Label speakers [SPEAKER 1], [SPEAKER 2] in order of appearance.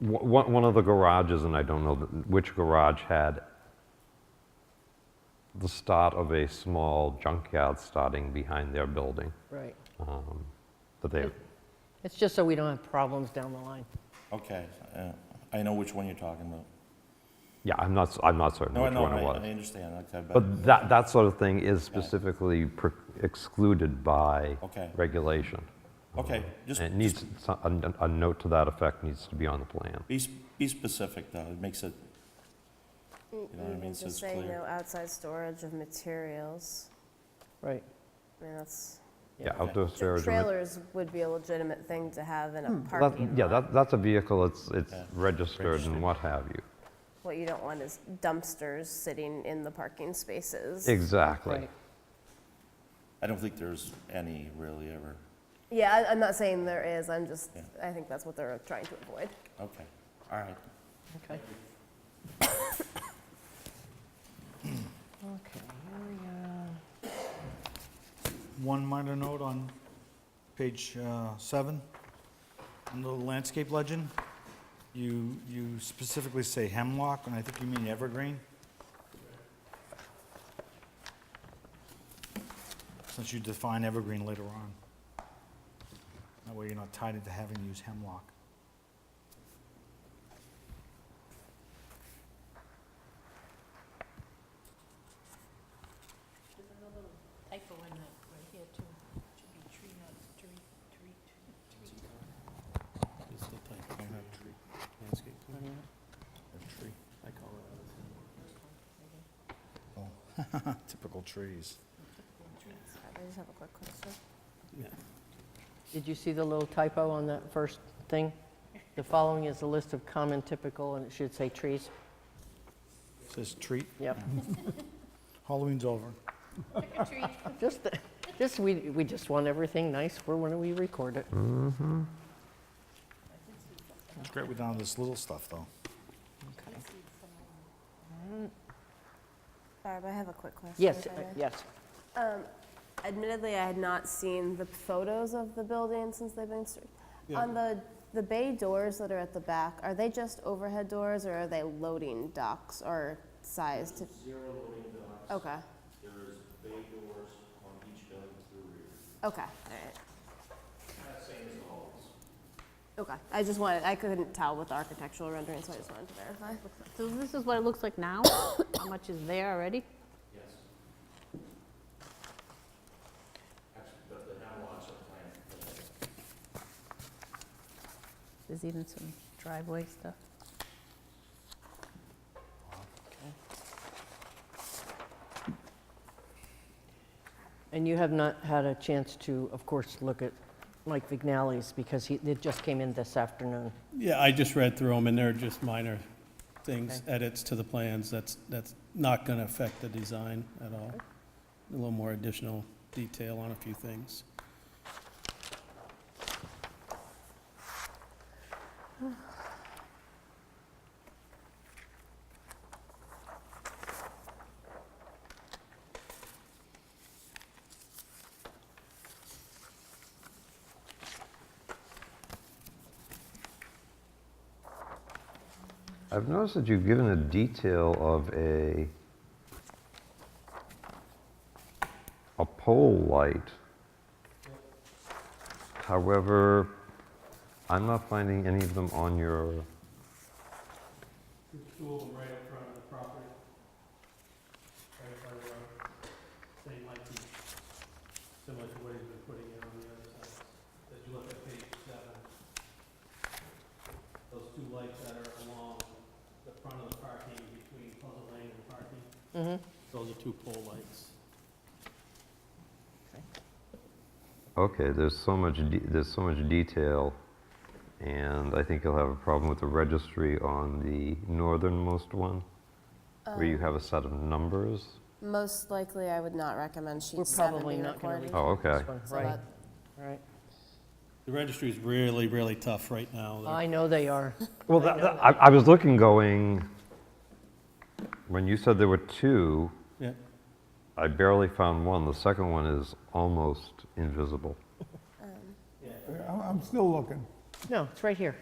[SPEAKER 1] One, one of the garages, and I don't know th- which garage, had the start of a small junkyard starting behind their building,
[SPEAKER 2] Right.
[SPEAKER 1] but they,
[SPEAKER 2] It's just so we don't have problems down the line.
[SPEAKER 3] Okay, yeah, I know which one you're talking about.
[SPEAKER 1] yeah, I'm not, s- I'm not certain
[SPEAKER 3] No, I
[SPEAKER 1] which
[SPEAKER 3] know,
[SPEAKER 1] one it
[SPEAKER 3] I
[SPEAKER 1] was.
[SPEAKER 3] I understand, okay, but,
[SPEAKER 1] But that, that sort of thing is specifically per- excluded by
[SPEAKER 3] Okay.
[SPEAKER 1] regulation.
[SPEAKER 3] okay, just
[SPEAKER 1] And it needs, so- a a note to that effect needs to be on the plan.
[SPEAKER 3] be, s- be specific though, it makes it, you know what I mean, Mm, so it's
[SPEAKER 4] Just say no
[SPEAKER 3] clear.
[SPEAKER 4] outside storage of materials.
[SPEAKER 2] Right.
[SPEAKER 4] I mean, that's,
[SPEAKER 1] Yeah, outdoor
[SPEAKER 4] tra-
[SPEAKER 1] storage. unit.
[SPEAKER 4] trailers would be a legitimate thing to have in a
[SPEAKER 1] That-
[SPEAKER 4] parking
[SPEAKER 1] Yeah,
[SPEAKER 4] lot.
[SPEAKER 1] that, that's a vehicle, it's, it's
[SPEAKER 3] Yeah,
[SPEAKER 1] registered
[SPEAKER 3] registered.
[SPEAKER 1] and what have you.
[SPEAKER 4] What you don't want is dumpsters sitting in the parking spaces.
[SPEAKER 1] Exactly.
[SPEAKER 2] Right.
[SPEAKER 3] I don't think there's any really ever,
[SPEAKER 4] Yeah, I- I'm not saying there is, I'm just,
[SPEAKER 3] Yeah.
[SPEAKER 4] I think that's what they're trying to avoid.
[SPEAKER 3] okay, all right.
[SPEAKER 2] Okay. Okay, here we go.
[SPEAKER 5] One minor note on page uh, seven, under the landscape legend, you, you specifically say hemlock, and I think you mean evergreen. Since you define evergreen later on. That way you're not tied into having to use hemlock.
[SPEAKER 6] There's a little typo in that right here too. Should be tree, not tree, tree, tree.
[SPEAKER 5] Oh, Typical trees.
[SPEAKER 4] I just have a quick question.
[SPEAKER 2] Did you see the little typo on that first thing? The following is a list of common typical, and it should say trees.
[SPEAKER 5] Says treat.
[SPEAKER 2] Yep.
[SPEAKER 5] Halloween's over.
[SPEAKER 6] Trick or treat.
[SPEAKER 2] Just, the- just, we, we just want everything nice for when we record it.
[SPEAKER 5] It's great we're down to this little stuff, though.
[SPEAKER 4] Barb, I have a quick question.
[SPEAKER 2] Yes,
[SPEAKER 4] if I
[SPEAKER 2] uh,
[SPEAKER 4] may.
[SPEAKER 2] yes.
[SPEAKER 4] Um, Admittedly, I had not seen the photos of the building since they've been, str- on the, the bay doors that are at the back, are they just overhead doors or are they loading docks or sized? Zero loading docks. Okay. There is bay doors on each building to the rear. Okay, all right. Okay, I just wanted, I couldn't tell with the architectural rendering, so I just wanted to verify.
[SPEAKER 6] So this is what it looks like now? How much is there already? There's even some driveway stuff.
[SPEAKER 2] And you have not had a chance to, of course, look at Mike Vignali's, because he, it just came in this afternoon.
[SPEAKER 7] Yeah, I just read through them, and they're just minor things, edits to the plans, that's, that's not gonna affect the design at all. A little more additional detail on a few things.
[SPEAKER 1] I've noticed that you've given a detail of a, a pole light. However, I'm not finding any of them on your,
[SPEAKER 7] Two of them right up front of the property. Right by the road. They might be similar to what he's been putting in on the other side. As you look at page seven, those two lights that are along the front of the parking between Pleasant Lane and parking,
[SPEAKER 2] Mm-hmm.
[SPEAKER 7] those are two pole lights.
[SPEAKER 1] okay, there's so much, de- there's so much detail, and I think you'll have a problem with the registry on the northernmost one, where
[SPEAKER 2] Uh,
[SPEAKER 1] you have a set of numbers.
[SPEAKER 4] Most likely, I would not recommend
[SPEAKER 2] We're
[SPEAKER 4] sheet seven
[SPEAKER 2] probably
[SPEAKER 4] be
[SPEAKER 2] not going to leave.
[SPEAKER 4] recorded.
[SPEAKER 1] Oh, okay.
[SPEAKER 2] this one,
[SPEAKER 4] So
[SPEAKER 2] Right,
[SPEAKER 4] that-
[SPEAKER 2] right.
[SPEAKER 7] The registry's really, really tough right now. They're-
[SPEAKER 2] I know they are.
[SPEAKER 1] Well,
[SPEAKER 2] I
[SPEAKER 1] that,
[SPEAKER 2] know
[SPEAKER 1] that- I, I was looking going, when you said there were two,
[SPEAKER 7] Yeah,
[SPEAKER 1] I barely found one. The second one is almost invisible.
[SPEAKER 8] I'm I'm still looking.
[SPEAKER 2] No, it's right here.